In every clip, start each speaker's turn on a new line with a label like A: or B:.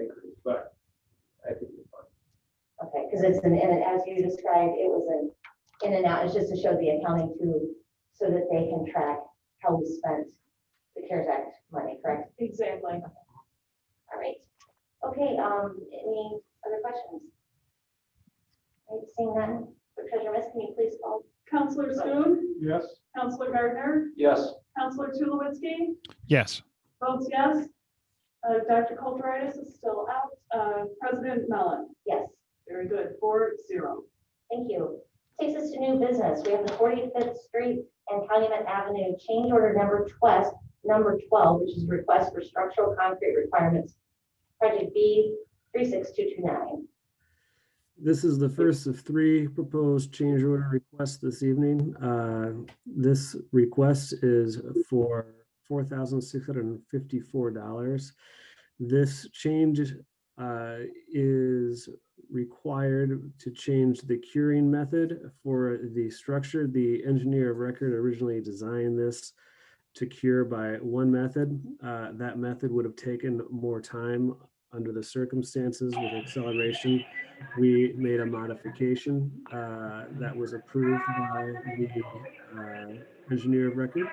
A: acres, but I think it's fine.
B: Okay, because it's an, in and as you described, it was an in and out, it's just to show the accounting too, so that they can track how we spent the CARES Act money, correct?
C: Exactly.
B: All right. Okay, um, any other questions? All right, Seeing none, for Treasurer Miss, can you please call?
C: Counselor Schoen,
A: Yes?
C: Counselor Gardner,
A: Yes.
C: Counselor Tulowitzki,
D: Yes.
C: votes yes. Uh, Dr. Kulturitis is still out. Uh, President Mellon,
B: Yes,
C: very good, four zero.
B: thank you. Takes us to new business. We have the Forty-Fifth Street and Calumet Avenue change order number twelve, number twelve, which is request for structural concrete requirements. Project B three six two two nine.
E: This is the first of three proposed change order requests this evening. Uh, This request is for four thousand six hundred and fifty-four dollars. This change uh, is required to change the curing method for the structure. The engineer of record originally designed this to cure by one method. Uh, That method would have taken more time under the circumstances with acceleration we made a modification uh, that was approved by the uh, engineer of record.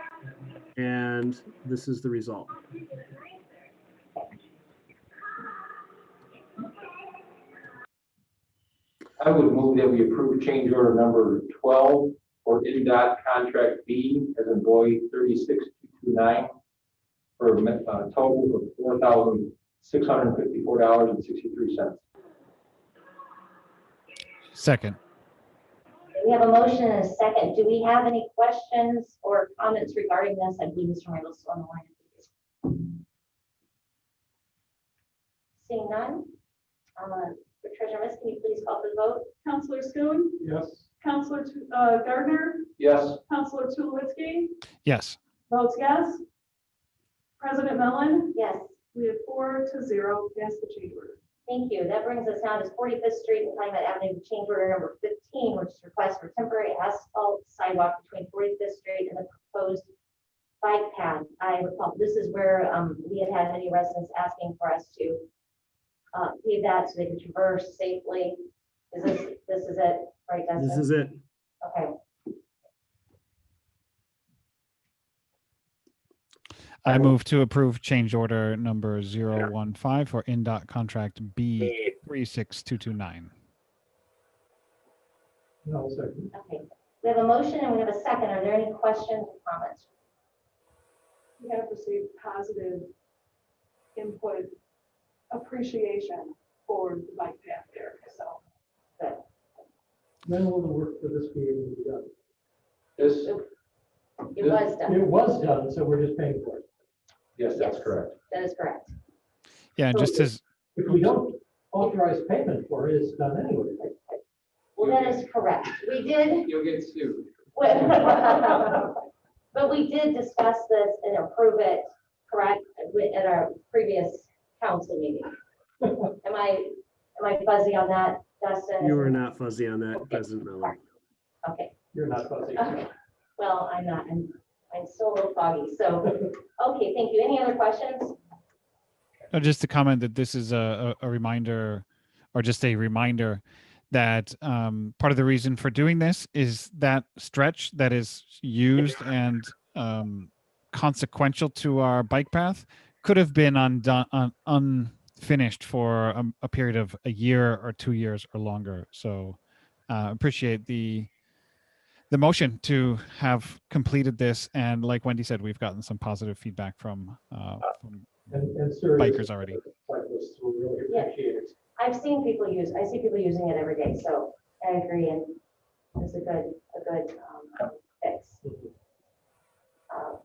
E: And this is the result.
A: I would move that we approve change order number twelve for NDOT contract B as in boy thirty-six two nine for a mi- uh, total of four thousand six hundred and fifty-four dollars and sixty-three cents.
D: Second.
B: We have a motion and a second. Do we have any questions or comments regarding this? I believe Mr. Randall's still on the line. Seeing none, uh, Treasurer Miss, can you please call for the vote?
C: Counselor Schoen,
A: Yes.
C: Counselor Tu- uh, Gardner,
A: Yes.
C: Counselor Tulowitzki,
D: Yes.
C: votes yes. President Mellon,
B: Yes,
C: we have four to zero, pass the change order.
B: thank you. That brings us now to Forty-Fifth Street and Calumet Avenue, change order number fifteen, which is request for temporary asphalt sidewalk between Forty-Fifth Street and the proposed bike path. I recall, this is where, um, we had had many residents asking for us to uh, pave that so they can traverse safely. Is this, this is it, right,
E: This
B: Dustin?
E: is it.
B: Okay,
D: I move to approve change order number 015 for NDOT contract B 36229.
A: No, second.
B: okay. We have a motion and we have a second. Are there any questions or comments?
C: We have received positive input appreciation for the bike path there, so.
F: Then all the work for this be able to be done.
A: This,
B: It was done.
F: It was done, so we're just paying for it.
A: yes, that's
B: Yes.
A: correct.
B: That is correct.
D: Yeah, and just as,
F: If we don't authorize payment for it, it's done anyway.
B: Well, that is correct. We did
A: You'll get sued.
B: But we did discuss this and approve it, correct, wi- at our previous council meeting. Am I, am I fuzzy on that, Dustin?
E: You are not fuzzy on that,
B: Okay.
E: President Mellon.
B: Okay,
F: You're not fuzzy.
B: okay. Well, I'm not, I'm, I'm still a little foggy, so, okay, thank you. Any other questions?
D: no, just to comment that this is a, a a reminder or just a reminder that um, part of the reason for doing this is that stretch that is used and um, consequential to our bike path could have been undone, un, unfinished for um, a period of a year or two years or longer. So uh, appreciate the the motion to have completed this. And like Wendy said, we've gotten some positive feedback from, uh, from
F: And, and seriously.
D: Bikers already.
F: Cyclists will really
B: Yeah.
F: appreciate it.
B: I've seen people use, I see people using it every day, so I agree, and it's a good, a good, um, fix. Uh,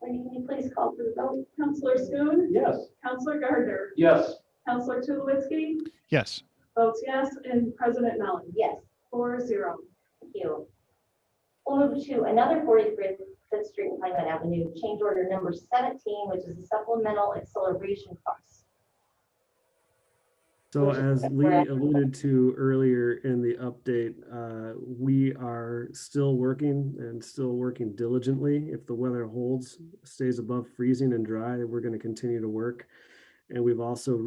B: Wendy, can you please call for the vote?
C: Counselor Schoen,
F: Yes,
C: Counselor Gardner,
A: Yes.
C: Counselor Tulowitzki,
D: yes.
C: votes yes, and President Mellon,
B: Yes.
C: four zero.
B: Thank you. We'll move to another 43rd Fifth Street and Franklin Avenue, change order number 17, which is the supplemental acceleration costs.
E: So
B: Which is
E: as Lee
B: correct.
E: alluded to earlier in the update, uh, we are still working and still working diligently. If the weather holds, stays above freezing and dry, we're going to continue to work. And we've also